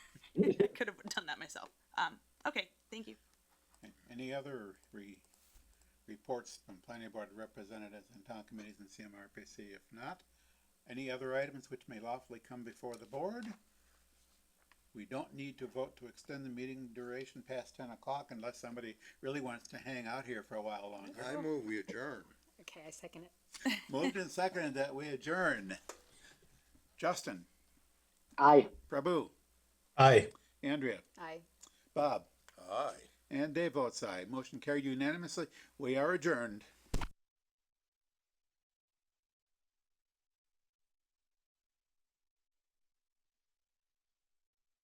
Um, okay, thank you. Any other re, reports from planning board representatives and town committees and CMRPC? If not, any other items which may lawfully come before the board? We don't need to vote to extend the meeting duration past ten o'clock unless somebody really wants to hang out here for a while longer. I move we adjourn. Okay, I second it. Moved and seconded that we adjourn. Justin, Aye. Prabhu, Aye. Andrea, Aye. Bob, Aye. and Dave votes aye. Motion carried unanimously. We are adjourned.